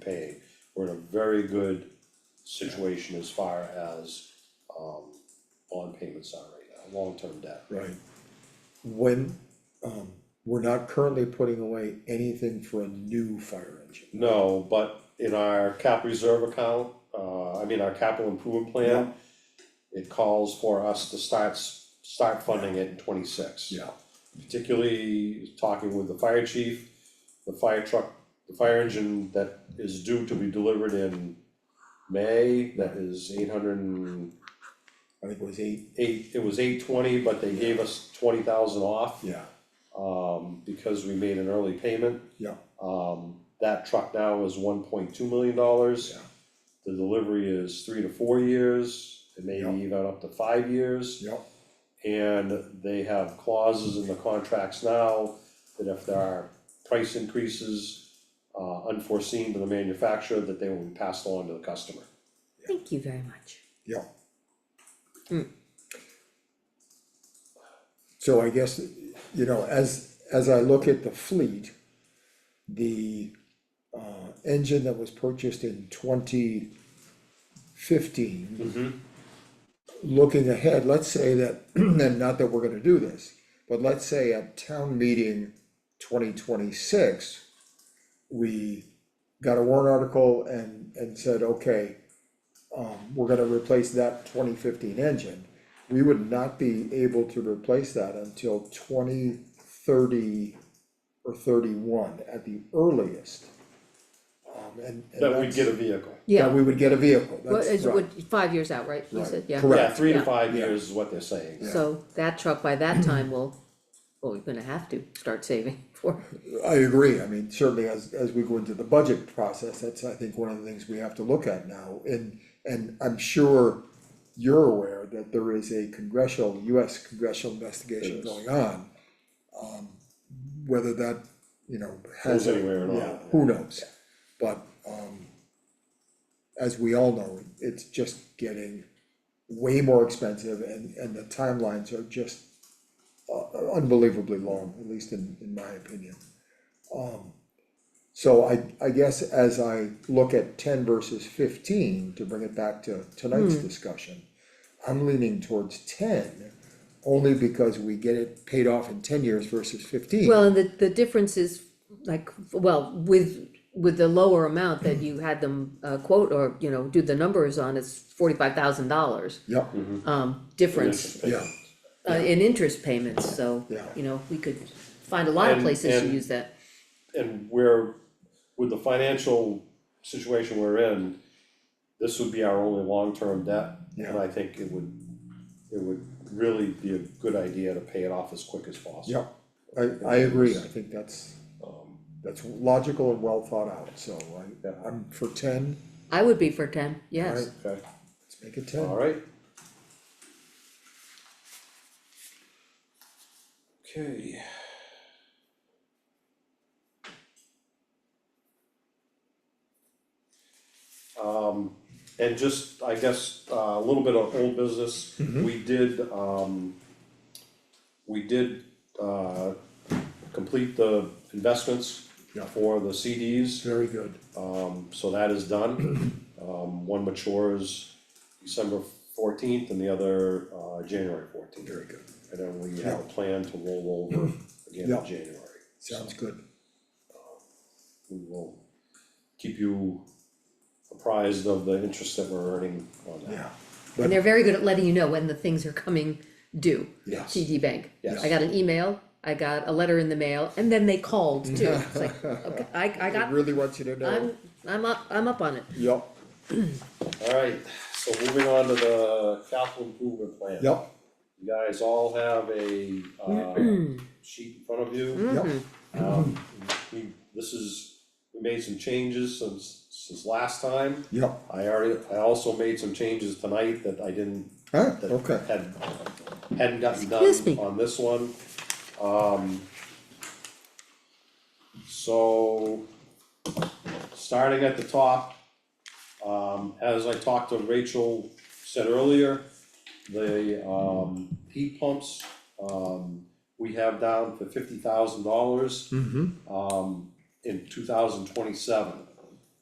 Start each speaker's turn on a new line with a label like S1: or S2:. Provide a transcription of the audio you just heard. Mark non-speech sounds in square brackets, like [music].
S1: paying. We're in a very good situation as far as um bond payments are right now, long-term debt.
S2: Right. When, um, we're not currently putting away anything for a new fire engine.
S1: No, but in our cap reserve account, uh, I mean, our capital improvement plan, it calls for us to start, s- start funding it in twenty-six.
S2: Yeah.
S1: Particularly talking with the fire chief, the fire truck, the fire engine that is due to be delivered in May, that is eight hundred and
S2: I think it was eight,
S1: eight, it was eight twenty, but they gave us twenty thousand off,
S2: yeah,
S1: um, because we made an early payment.
S2: yeah,
S1: Um, that truck now is one point two million dollars.
S2: Yeah.
S1: The delivery is three to four years, and
S2: Yeah.
S1: maybe even up to five years.
S2: yeah,
S1: And they have clauses in the contracts now that if there are price increases uh unforeseen to the manufacturer, that they will be passed on to the customer.
S3: Thank you very much.
S2: yeah.
S3: Hmm.
S2: So I guess, you know, as, as I look at the fleet, the, uh, engine that was purchased in twenty fifteen
S1: Mm-hmm.
S2: looking ahead, let's say that, [clears throat] and not that we're gonna do this, but let's say at town meeting twenty twenty-six, we got a warrant article and, and said, okay, um, we're gonna replace that twenty fifteen engine. We would not be able to replace that until twenty thirty or thirty-one at the earliest. Um, and, and
S1: That we
S2: that's-
S1: get a vehicle.
S2: That we would get a vehicle,
S3: What
S2: that's
S3: is,
S2: right,
S3: what, five years out, right, you
S2: Right.
S3: said, yeah.
S2: Correct.
S1: Yeah, three to
S3: Yeah.
S1: five
S2: Yeah.
S1: years is what they're saying.
S3: So that truck by
S2: [clears throat]
S3: that time will, well, we're gonna have to start saving [laughs] for,
S2: I agree, I mean, certainly as, as we go into the budget process, that's, I think, one of the things we have to look at now, and, and I'm sure you're aware that there is a congressional, US congressional investigation
S1: Yes.
S2: going on. Um, whether that, you know, has.
S1: Goes anywhere at all,
S2: yeah, Who knows, but, um, as we all know, it's just getting way more expensive, and, and the timelines are just uh, unbelievably long, at least in, in my opinion. Um, So I, I guess as I look at ten versus fifteen, to bring it back to tonight's
S3: Hmm.
S2: discussion, I'm leaning towards ten, only because we get it paid off in ten years versus fifteen.
S3: well, and the, the difference is like, well, with, with the lower amount that you had them uh, quote or, you know, do the numbers on, it's forty-five thousand dollars.
S2: Yep,
S3: Um,
S1: [laughs]
S3: difference
S2: Mm-hmm. yeah,
S3: uh, in interest payments, so,
S2: Yeah.
S3: you know, we could find a lot of
S1: And-
S3: places to
S1: and-
S3: use that.
S1: and we're, with the financial situation we're in, this would be our only long-term debt. And
S2: Yeah.
S1: I think it would, it would really be a good idea to pay it off as quick as possible.
S2: yep. I, I agree, I think that's, that's logical and well thought out, so I, I'm for ten,
S3: I would be for ten, yes,
S1: Okay,
S2: let's make it ten.
S1: alright. Okay. Um, and just, I guess, uh, a little bit of old business,
S2: Mm-hmm.
S1: we did, um, we did, uh, complete the investments
S2: Yeah.
S1: for the CDs.
S2: Very good,
S1: Um, so that is done. [clears throat] Um, one matures December fourteenth and the other, uh, January fourteenth.
S2: very good,
S1: And then we have a plan to roll
S2: [clears throat]
S1: over again
S2: Yeah.
S1: in January.
S2: sounds good,
S1: We will keep you apprised of the interest that we're earning on that.
S2: yeah,
S3: and they're very good at letting you know when the things are coming due.
S2: yes, [laughs]
S3: TD Bank.
S1: Yes.
S3: I got an email, I got a letter in the mail, and then they called
S2: [laughs]
S3: too, it's like, okay, I, I
S2: it
S3: got,
S2: really wants you to know,
S3: I'm, I'm up, I'm up on it.
S2: yep,
S1: Alright, so moving on to the capital improvement plan.
S2: yep,
S1: You guys all have a, uh, sheet in front of you.
S2: yep,
S3: Mm-hmm.
S1: Um, we, this is, we made some changes since, since last time.
S2: yep,
S1: I already, I also made some changes tonight that I didn't,
S2: Huh?
S1: that
S2: okay,
S1: had, hadn't gotten
S3: Excuse
S1: done
S3: me.
S1: on this one. Um. So, starting at the top, um, as I talked to Rachel said earlier, the, um, heat pumps, um, we have down for fifty thousand dollars
S2: mm-hmm,
S1: um, in two thousand twenty-seven.